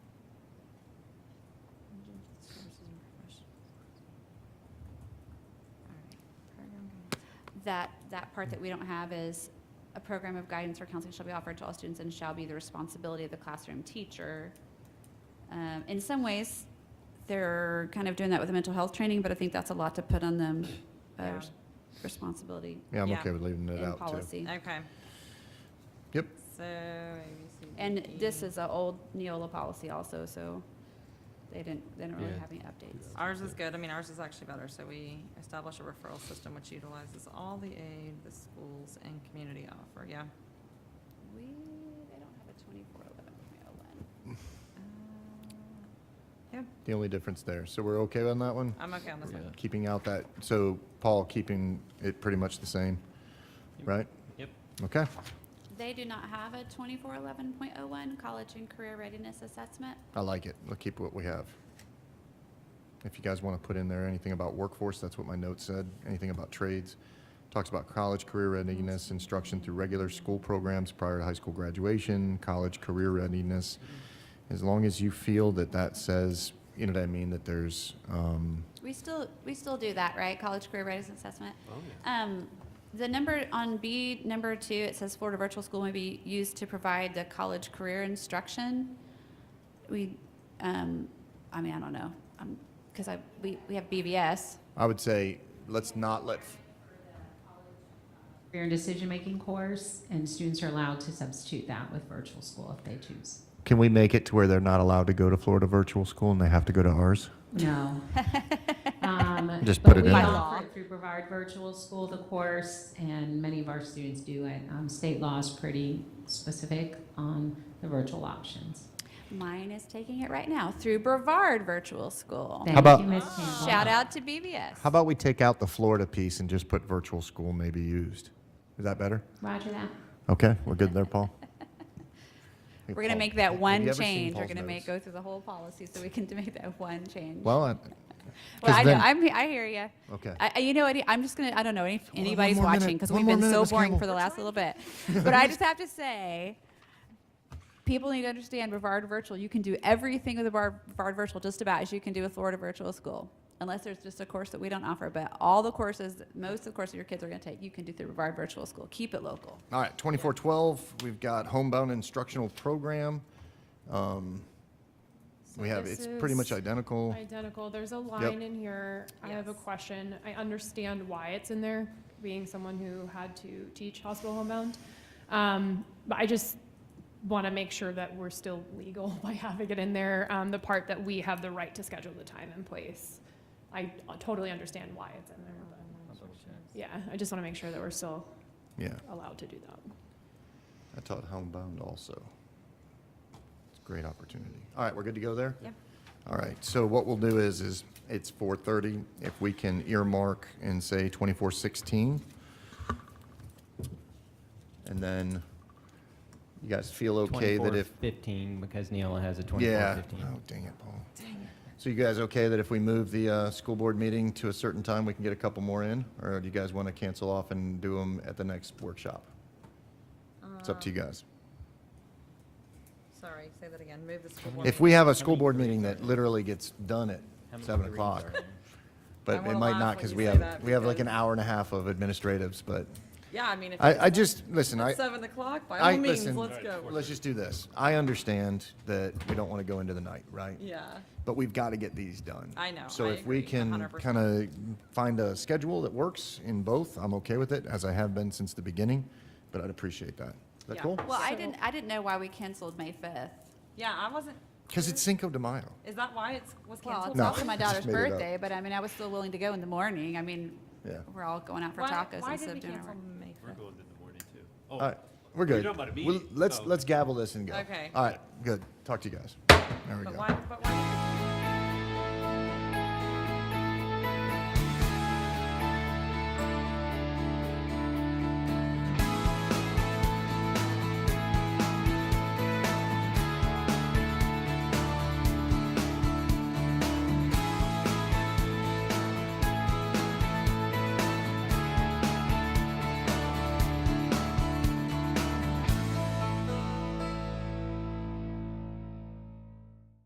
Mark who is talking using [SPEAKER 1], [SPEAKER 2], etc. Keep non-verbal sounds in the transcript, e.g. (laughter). [SPEAKER 1] that, that part that we don't have is a program of guidance or counseling shall be offered to all students and shall be the responsibility of the classroom teacher. Um, in some ways, they're kind of doing that with the mental health training, but I think that's a lot to put on them, uh,
[SPEAKER 2] Yeah.
[SPEAKER 1] res- responsibility
[SPEAKER 3] Yeah, I'm
[SPEAKER 2] Yeah.
[SPEAKER 3] okay with leaving it
[SPEAKER 1] in
[SPEAKER 3] out too.
[SPEAKER 1] policy.
[SPEAKER 2] Okay.
[SPEAKER 3] Yep.
[SPEAKER 2] So. A, B, C, D,
[SPEAKER 1] And this
[SPEAKER 2] E.
[SPEAKER 1] is an old Neola policy also, so they didn't, they didn't really
[SPEAKER 4] Yeah.
[SPEAKER 1] have any updates.
[SPEAKER 2] Ours is good. I mean, ours is actually better. So we establish a referral system which utilizes all the aid the schools and community offer. Yeah.
[SPEAKER 1] We, they don't have a twenty-four eleven oh Neola.
[SPEAKER 2] Uh,
[SPEAKER 3] The only difference there. So we're okay on that one?
[SPEAKER 2] I'm okay on this one.
[SPEAKER 4] Yeah.
[SPEAKER 3] Keeping out that, so Paul, keeping it pretty much the same, right?
[SPEAKER 4] Yep.
[SPEAKER 3] Okay.
[SPEAKER 1] They do not have a twenty-four eleven point oh one college and career readiness assessment.
[SPEAKER 3] I like it. We'll keep what we have. If you guys want to put in there anything about workforce, that's what my note said. Anything about trades. Talks about college career readiness, instruction through regular school programs prior to high school graduation, college career readiness. As long as you feel that that says, you know what I mean, that there's, um,
[SPEAKER 1] We still, we still do that, right? College career readiness assessment.
[SPEAKER 4] Oh, yeah.
[SPEAKER 1] Um, the number on B, number two, it says Florida virtual school may be used to provide the college career instruction. We, um, I mean, I don't know, um, cause I, we, we have BVS.
[SPEAKER 3] I would say, let's not let,
[SPEAKER 5] career and decision-making course, and students are allowed to substitute that with virtual school if they choose.
[SPEAKER 3] Can we make it to where they're not allowed to go to Florida virtual school and they have to go to ours?
[SPEAKER 5] No. Um,
[SPEAKER 3] Just
[SPEAKER 5] but
[SPEAKER 3] put it
[SPEAKER 5] we
[SPEAKER 3] in.
[SPEAKER 1] By law.
[SPEAKER 5] offer it Through Brevard Virtual School, the course, and many of our students do it. Um, State law is pretty specific on the virtual options.
[SPEAKER 1] Mine is taking it right now through Brevard Virtual School.
[SPEAKER 5] Thank
[SPEAKER 3] about-
[SPEAKER 5] you, Ms. Campbell.
[SPEAKER 1] Shout out to BVS.
[SPEAKER 3] How about we take out the Florida piece and just put virtual school may be used? Is that better?
[SPEAKER 5] Roger that.
[SPEAKER 3] Okay, we're good there, Paul.
[SPEAKER 1] (laughs) We're gonna make
[SPEAKER 3] Have
[SPEAKER 1] that
[SPEAKER 3] you
[SPEAKER 1] one
[SPEAKER 3] ever seen
[SPEAKER 1] change. We're
[SPEAKER 3] Paul's
[SPEAKER 1] gonna make,
[SPEAKER 3] notes?
[SPEAKER 1] go through the whole policy so we can (laughs) make that one change. Well,
[SPEAKER 3] Well, I-
[SPEAKER 1] I
[SPEAKER 3] 'cause
[SPEAKER 1] know,
[SPEAKER 3] then-
[SPEAKER 1] I'm, I hear you.
[SPEAKER 3] okay.
[SPEAKER 1] I, I- you know what? I'm just gonna, I don't know if
[SPEAKER 3] on, one
[SPEAKER 1] anybody's
[SPEAKER 3] more minute,
[SPEAKER 1] watching because
[SPEAKER 3] one
[SPEAKER 1] we've
[SPEAKER 3] more
[SPEAKER 1] been
[SPEAKER 3] minute,
[SPEAKER 1] so
[SPEAKER 3] Ms.
[SPEAKER 1] boring
[SPEAKER 3] Campbell.
[SPEAKER 1] for the last little
[SPEAKER 3] (laughs)
[SPEAKER 1] bit. But I just have to say, people need to understand Brevard Virtual, you can do everything with the Bar- Brevard Virtual just about as you can do with Florida Virtual School. Unless there's just a course that we don't offer, but all the courses, most of the courses your kids are gonna take, you can do through Brevard Virtual School. Keep it local.
[SPEAKER 3] All right, twenty-four twelve, we've got homebound instructional program. Um, We have,
[SPEAKER 6] this
[SPEAKER 3] it's pretty much
[SPEAKER 6] is
[SPEAKER 3] identical.
[SPEAKER 6] Identical. There's a line in here. I have a
[SPEAKER 2] Yes.
[SPEAKER 6] question. I understand why it's in there, being someone who had to teach hospital homebound. Um, but I just want to make sure that we're still legal (laughs) by having it in there. Um, the part that we have the right to schedule the time and place. I totally understand why it's in there. But yeah, I just want to make sure that we're still
[SPEAKER 3] Yeah,
[SPEAKER 6] allowed to do that.
[SPEAKER 3] I taught homebound also. It's a great opportunity. All right, we're good to go there?
[SPEAKER 2] Yep.
[SPEAKER 3] All right, so what we'll do is, is it's four thirty. If we can earmark and say twenty-four sixteen. And then you guys feel okay that if,
[SPEAKER 4] 15, because Neola has a 24,
[SPEAKER 3] yeah.
[SPEAKER 4] 15.
[SPEAKER 3] Oh, dang it, Paul. So you guys okay that if we move the, uh, school board meeting to a certain time, we can get a couple more in? Or do you guys want to cancel off and do them at the next workshop? It's up to you guys.
[SPEAKER 2] Uh, Sorry, say that again. Move the school board.
[SPEAKER 3] If we have a school board meeting that literally gets done at
[SPEAKER 4] How many
[SPEAKER 3] seven
[SPEAKER 4] greens
[SPEAKER 3] o'clock,
[SPEAKER 4] are there?
[SPEAKER 2] I
[SPEAKER 3] but it
[SPEAKER 2] wanna
[SPEAKER 3] might
[SPEAKER 2] laugh
[SPEAKER 3] not
[SPEAKER 2] when
[SPEAKER 3] because
[SPEAKER 2] you
[SPEAKER 3] we
[SPEAKER 2] say
[SPEAKER 3] have,
[SPEAKER 2] that
[SPEAKER 3] we have like an
[SPEAKER 2] because-
[SPEAKER 3] hour and a half of administratives, but
[SPEAKER 2] Yeah, I mean, if.
[SPEAKER 3] I,
[SPEAKER 2] it's
[SPEAKER 3] I just, listen, I,
[SPEAKER 2] Seven o'clock, by
[SPEAKER 3] I,
[SPEAKER 2] all means,
[SPEAKER 3] listen,
[SPEAKER 2] let's go.
[SPEAKER 3] let's just do this. I understand that we don't want to go into the night, right?
[SPEAKER 2] Yeah.
[SPEAKER 3] But we've got to get these done.
[SPEAKER 2] I know,
[SPEAKER 3] So
[SPEAKER 2] I
[SPEAKER 3] if we
[SPEAKER 2] agree,
[SPEAKER 3] can
[SPEAKER 2] 100%.
[SPEAKER 3] kind of find a schedule that works in both, I'm okay with it, as I have been since the beginning, but I'd appreciate that. Is that
[SPEAKER 2] Yeah.
[SPEAKER 3] cool?
[SPEAKER 1] Well, I
[SPEAKER 6] So-
[SPEAKER 1] didn't, I didn't know why we canceled May fifth.
[SPEAKER 2] Yeah, I wasn't,
[SPEAKER 3] Because it's Cinco de Mayo.
[SPEAKER 2] is that why it's, was
[SPEAKER 1] Well,
[SPEAKER 2] canceled?
[SPEAKER 1] it's
[SPEAKER 3] No,
[SPEAKER 1] also my
[SPEAKER 3] I (laughs) just
[SPEAKER 1] daughter's
[SPEAKER 3] made it up.
[SPEAKER 1] birthday, but I mean, I was still willing to go in the morning. I mean,
[SPEAKER 3] Yeah.
[SPEAKER 1] we're all going out for
[SPEAKER 2] Why-
[SPEAKER 1] tacos
[SPEAKER 2] Why
[SPEAKER 1] instead
[SPEAKER 2] did
[SPEAKER 1] of
[SPEAKER 2] we
[SPEAKER 1] dinner.
[SPEAKER 2] cancel May
[SPEAKER 7] We're
[SPEAKER 2] 5th?
[SPEAKER 7] going in the morning too.
[SPEAKER 3] All
[SPEAKER 7] Oh,
[SPEAKER 3] right, we're good.
[SPEAKER 7] talking about Oh. a
[SPEAKER 3] We'll-
[SPEAKER 7] meeting,
[SPEAKER 3] Let's,
[SPEAKER 7] so-
[SPEAKER 3] let's gavel this and go.
[SPEAKER 2] Okay.
[SPEAKER 3] All right, good. Talk to you guys. There we
[SPEAKER 2] But
[SPEAKER 3] go.
[SPEAKER 2] why, but why?